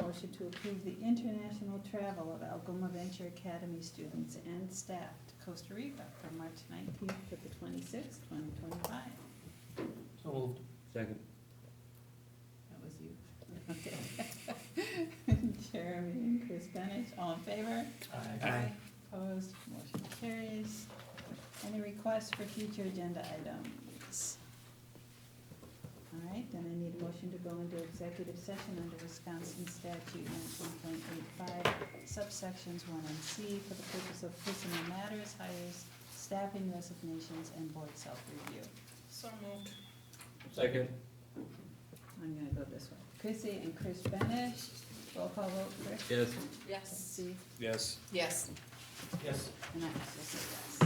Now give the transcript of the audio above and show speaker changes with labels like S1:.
S1: motion to approve the international travel of Algoma Venture Academy students and staff to Costa Rica from March nineteenth to the twenty-sixth, twenty twenty-five.
S2: So moved.
S3: Second.
S1: That was you. Okay. Jeremy and Chris Benish, all in favor?
S3: Aye.
S1: Opposed, motion carries. Any requests for future agenda items? All right, then I need a motion to go into executive session under Wisconsin statute nineteen point eight five, subsections one and C, for the purpose of personal matters, hires, staffing resignations, and board self-review.
S4: So moved.
S3: Second.
S1: I'm gonna go this way. Chrissy and Chris Benish, roll call vote, Chris?
S3: Yes.
S4: Yes.
S1: Steve?
S3: Yes.
S4: Yes.
S2: Yes.
S1: And I also say yes.